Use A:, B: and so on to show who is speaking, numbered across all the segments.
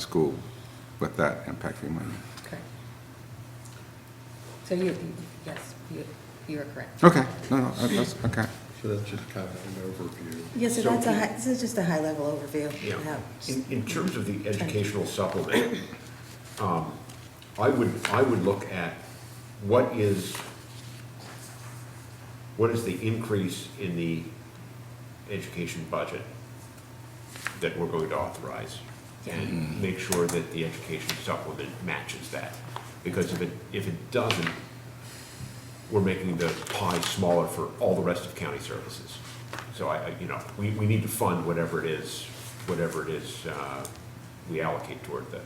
A: school with that impacting money.
B: Correct. So you, yes, you, you are correct.
A: Okay, no, no, that- that's, okay.
C: So that's just kind of an overview.
D: Yes, so
C: So
D: that's a, high- this is just a high-level overview. of
E: Yeah.
D: how-
E: In, in terms of the educational supplement, um, I would, I would look at what is, what is the increase in the education budget that we're going to authorize? And make sure that the education supplement matches that. Because if it, if it doesn't, we're making the pie smaller for all the rest of county services. So I, I- you know, we, we need to fund whatever it is, whatever it is uh, we allocate toward the,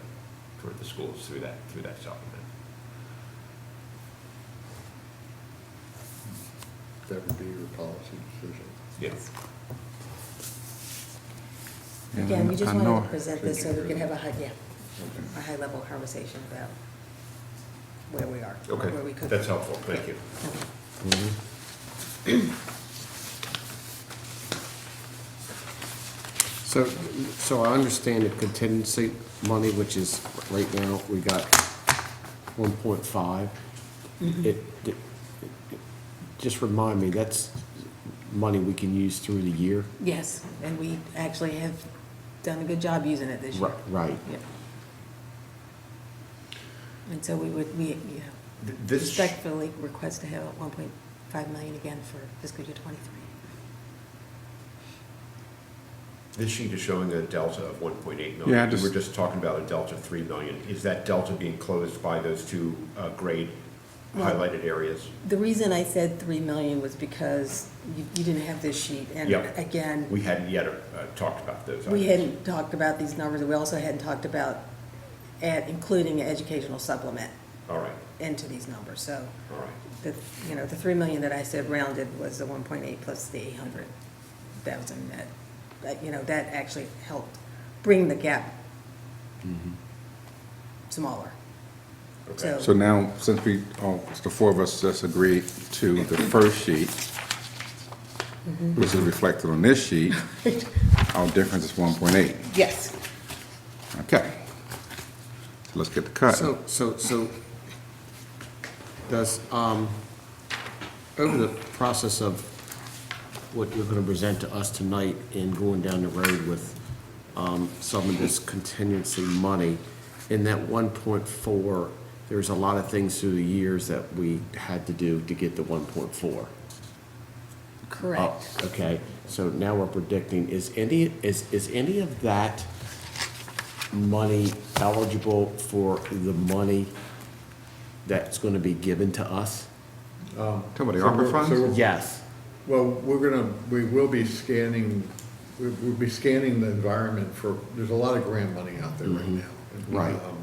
E: toward the schools through that, through that supplement.
C: That would be your policy decision.
E: Yes.
A: And
D: Again, we
A: I
D: just
A: know-
D: wanted to present this so we could have a high, yeah,
C: Okay.
D: a high-level conversation about where we are,
E: Okay,
D: where we could.
E: that's helpful, thank you.
D: Okay.
F: So, so I understand the contingency money, which is, right now, we got one point five. It, it- it- just remind me, that's money we can use through the year?
D: Yes, and we actually have done a good job using it this year.
F: Right, right.
D: Yeah. And so we would, we, you know,
E: Th- this-
D: respectfully request to have one point five million again for fiscal year twenty-three.
E: This sheet is showing a delta of 1.8 million.
A: Yeah, I
E: We
A: just-
E: were just talking about a delta of 3 million. Is that delta being closed by those two uh, grade
D: Well-
E: highlighted areas?
D: The reason I said three million was because you, you didn't have this sheet, and
E: Yeah.
D: again,
E: We hadn't yet uh, talked about those.
D: We
E: items.
D: hadn't talked about these numbers, and we also hadn't talked about add, including an educational supplement
E: All right,
D: into these numbers, so
E: all right.
D: the, you know, the three million that I said rounded was the one point eight plus the eight hundred thousand that, that, you know, that actually helped bring the gap
F: Mm-hmm.
D: smaller.
E: Okay.
A: So now, since we, all the four of us just agreed to the first sheet,
D: Mm-hmm.
A: which is reflected on this sheet, our difference is one point eight.
D: Yes.
F: Uh,
A: Okay. Let's get the cut.
F: So, so, so, does, um, over the process of what you're gonna present to us tonight and going down the road with, um, some of this contingency money, in that one point four, there's a lot of things through the years that we had to do to get to one point four.
B: Correct.
F: Oh, Okay, so now we're predicting, is any, is, is any of that money eligible for the money that's gonna be given to us?
A: Talking about the
C: So we're-
A: ARPA
C: so
A: funds?
C: we're-
F: Yes.
C: Well, we're gonna, we will be scanning, we- we'll be scanning the environment for, there's a lot of grant money out there right now.
F: Mm-hmm. Right.
C: Um,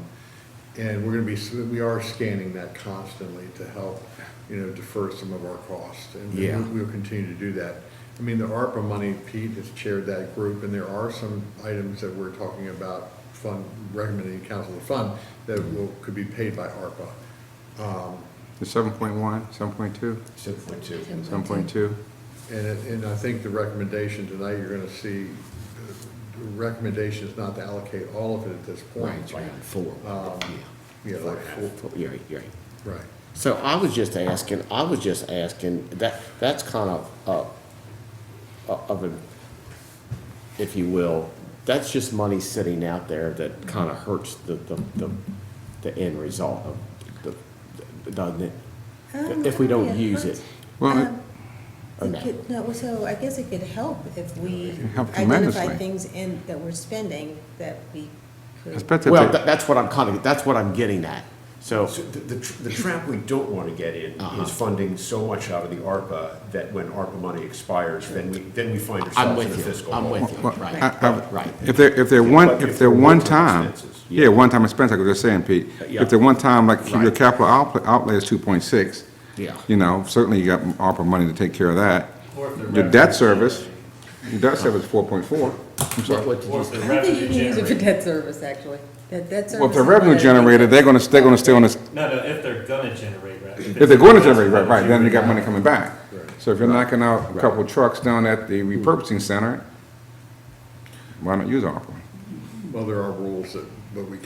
C: And we're gonna be, so we are scanning that constantly to help, you know, defer some of our costs. And we-
F: Yeah.
C: We'll continue to do that. I mean, the ARPA money, Pete has chaired that group, and there are some items that we're talking about fund, recommending council to fund that will, could be paid by ARPA.
A: The seven point one, seven point two,
E: 6.2.
A: seven point two?
C: And, it- and I think the recommendation tonight, you're gonna see, the recommendation is not to allocate all of it at this point.
F: Round four.
C: Yeah, like full-
F: Four, yeah, yeah.
C: right.
F: So I was just asking, I was just asking, that, that's kind of, uh, of a, if you will, that's just money sitting out there that kind of hurts the, the, the, the end result of the, doesn't it? If we
D: Um,
F: don't use it.
A: Well, it-
F: Or no?
D: No, well, so I guess it could help if we
A: can help
D: identify
A: tremendously.
D: things in, that we're spending that we could.
A: Especially
F: Well,
A: if
F: tha-
A: they,
F: that's what I'm kind of, that's what I'm getting at. So,
E: So the, the tr- the trap we don't want to get in
F: Uh-huh.
E: is funding so much out of the ARPA that when ARPA money expires, then we, then we find ourselves in
F: I'm
E: a
F: with you,
E: fiscal
F: I'm
E: hole.
F: with you,
A: well,
F: right,
A: I- I-
F: right.
A: if they're, if they're one,
E: But
A: if
E: if
A: they're
E: they're
A: one
E: one-time
A: time,
E: expenses.
A: yeah, one-time expense, like we were saying, Pete.
F: Yeah.
A: If they're one-time, like your
F: Right.
A: capital outlay, outlay is two point six.
F: Yeah.
A: You know, certainly you got ARPA money to take care of that.
G: Or if they're
A: Your debt
G: revenue
A: service, your debt service is four point four.
F: What, what did
G: Or
F: you
G: if
F: say?
G: they're
D: I think you
G: revenue
D: can use it for
G: generating.
D: debt service, actually. That, that service.
A: Well, if they're
D: is one
A: revenue
D: of the things-
A: generator, they're gonna, they're gonna stay on this,
G: No, no, if they're gonna generate revenue.
A: if they're gonna generate, right, right, then you got money coming back. So if you're knocking out a couple trucks down at the
F: Mm-hmm.
A: repurposing center, why not use ARPA?
C: Well, there are rules that but we